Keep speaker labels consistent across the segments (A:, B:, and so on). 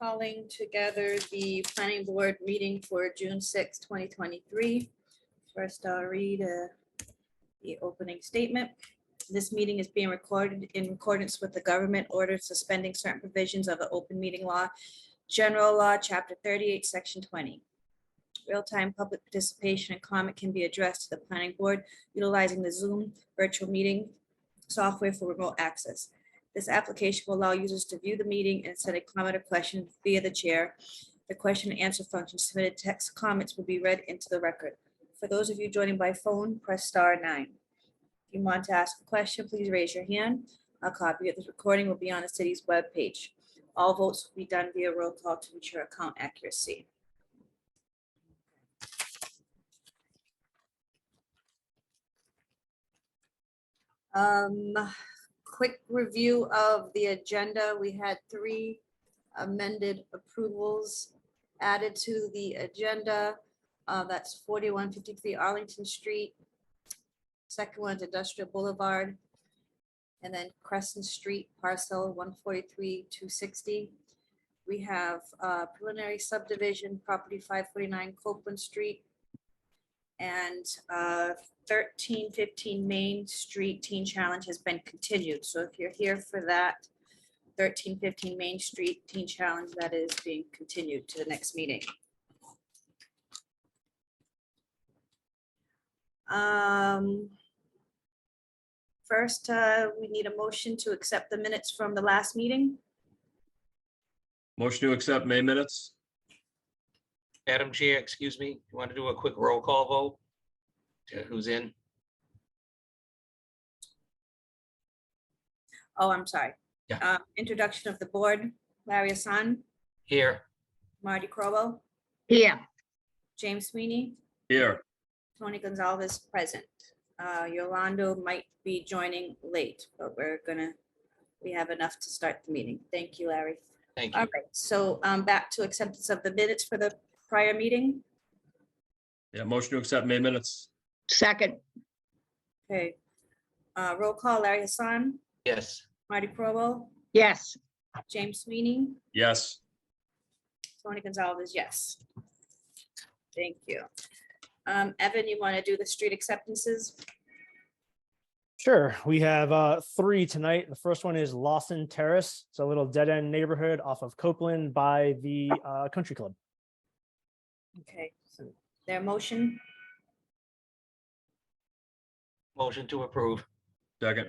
A: calling together the planning board meeting for June 6, 2023. First, I'll read uh, the opening statement. This meeting is being recorded in accordance with the government order suspending certain provisions of the open meeting law, general law, chapter 38, section 20. Real-time public participation and comment can be addressed to the planning board utilizing the Zoom virtual meeting software for remote access. This application will allow users to view the meeting and send a comment or question via the chair. The question and answer function submitted text comments will be read into the record. For those of you joining by phone, press star nine. If you want to ask a question, please raise your hand. A copy of this recording will be on the city's webpage. All votes will be done via roll call to ensure account accuracy. Um, quick review of the agenda. We had three amended approvals added to the agenda. Uh, That's 4153 Arlington Street. Second one's Industrial Boulevard. And then Crescent Street parcel 143 260. We have uh, preliminary subdivision property 549 Copeland Street. And uh, thirteen fifteen Main Street Teen Challenge has been continued, so if you're here for that, thirteen fifteen Main Street Teen Challenge, that is being continued to the next meeting. Um, First, uh, we need a motion to accept the minutes from the last meeting.
B: Motion to accept May minutes?
C: Madam Chair, excuse me, you want to do a quick roll call vote? To Who's in?
A: Oh, I'm sorry.
C: Yeah.
A: Uh, Introduction of the board, Larry Hassan,
C: Here,
A: Marty Crowell,
D: Here,
A: James Sweeney,
B: Here,
A: Tony Gonzalez present. Uh, Yolando might be joining late, but we're gonna, we have enough to start the meeting. Thank you, Larry.
C: thank
A: All
C: you.
A: right, so um, back to acceptance of the minutes for the prior meeting.
B: yeah, motion to accept May minutes?
D: second,
A: Okay. Uh, Roll call, Larry Hassan,
C: Yes,
A: Marty Crowell,
D: yes,
A: James Sweeney,
B: Yes,
A: Tony Gonzalez, yes. Thank you. Um, Evan, you want to do the street acceptances?
E: Sure. We have uh, three tonight. The first one is Lawson Terrace. It's a little dead end neighborhood off of Copeland by the uh, country club.
A: Okay, so their motion,
C: motion to approve.
B: second,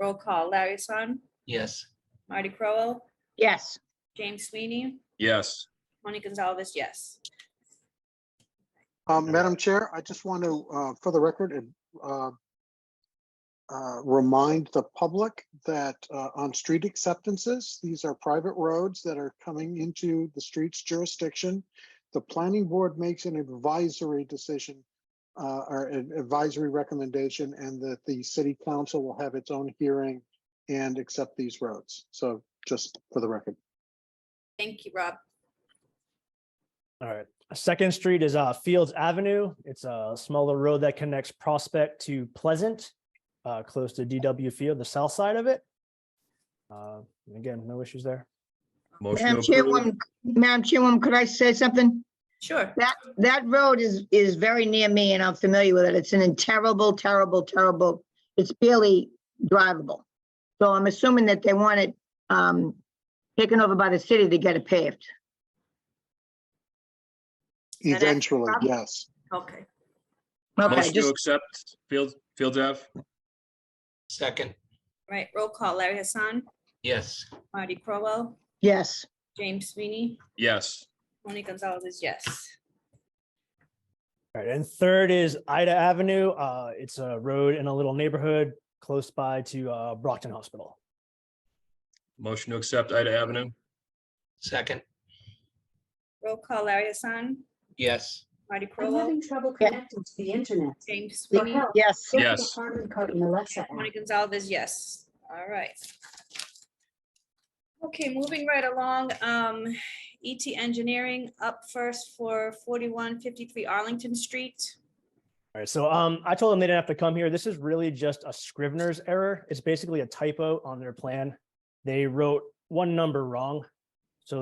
A: roll call, Larry Hassan,
C: Yes,
A: Marty Crowell,
D: yes,
A: James Sweeney,
B: yes,
A: Tony Gonzalez, yes.
F: Um, Madam Chair, I just want to, uh, for the record, and, uh, uh, remind the public that, uh, on street acceptances, these are private roads that are coming into the streets jurisdiction. The planning board makes an advisory decision, uh, or an advisory recommendation, and that the city council will have its own hearing and accept these roads. So just for the record.
A: Thank you, Rob.
E: All right. Second street is uh, Fields Avenue. It's a smaller road that connects Prospect to Pleasant, uh, close to DW Field, the south side of it. Uh, and again, no issues there.
B: motion to
D: Madam
B: approve.
D: Chairwoman, Madam Chairwoman, could I say something?
A: Sure.
D: That road is, is very near me and I'm familiar with it. It's in terrible, terrible, terrible, it's barely drivable. So I'm assuming that they want it, um, taken over by the city to get it paved.
A: And that's-
F: Eventually, yes.
A: Okay.
D: Okay,
B: Motion to
D: just,
B: accept Fields, Fields Ave?
C: second,
A: Right, roll call, Larry Hassan,
C: yes,
A: Marty Crowell,
D: yes,
A: James Sweeney,
B: Yes,
A: Tony Gonzalez, yes.
E: All right. And third is Ida Avenue. Uh, it's a road in a little neighborhood close by to uh, Brockton Hospital.
B: motion to accept Ida Avenue?
C: second,
A: Roll call, Larry Hassan,
C: yes,
A: Marty
G: I'm
A: Crowell,
G: having trouble
D: Yeah.
G: connecting to the internet.
A: James
G: The
A: Sweeney,
G: help,
D: yes,
G: get the
B: Yes.
G: Carbon copy and Alexa app.
A: Tony Gonzalez, yes. All right. Okay, moving right along, um, ET Engineering up first for forty-one fifty-three Arlington Street.
E: All right, so um, I told them they didn't have to come here. This is really just a Scrivener's error. It's basically a typo on their plan. They wrote one number wrong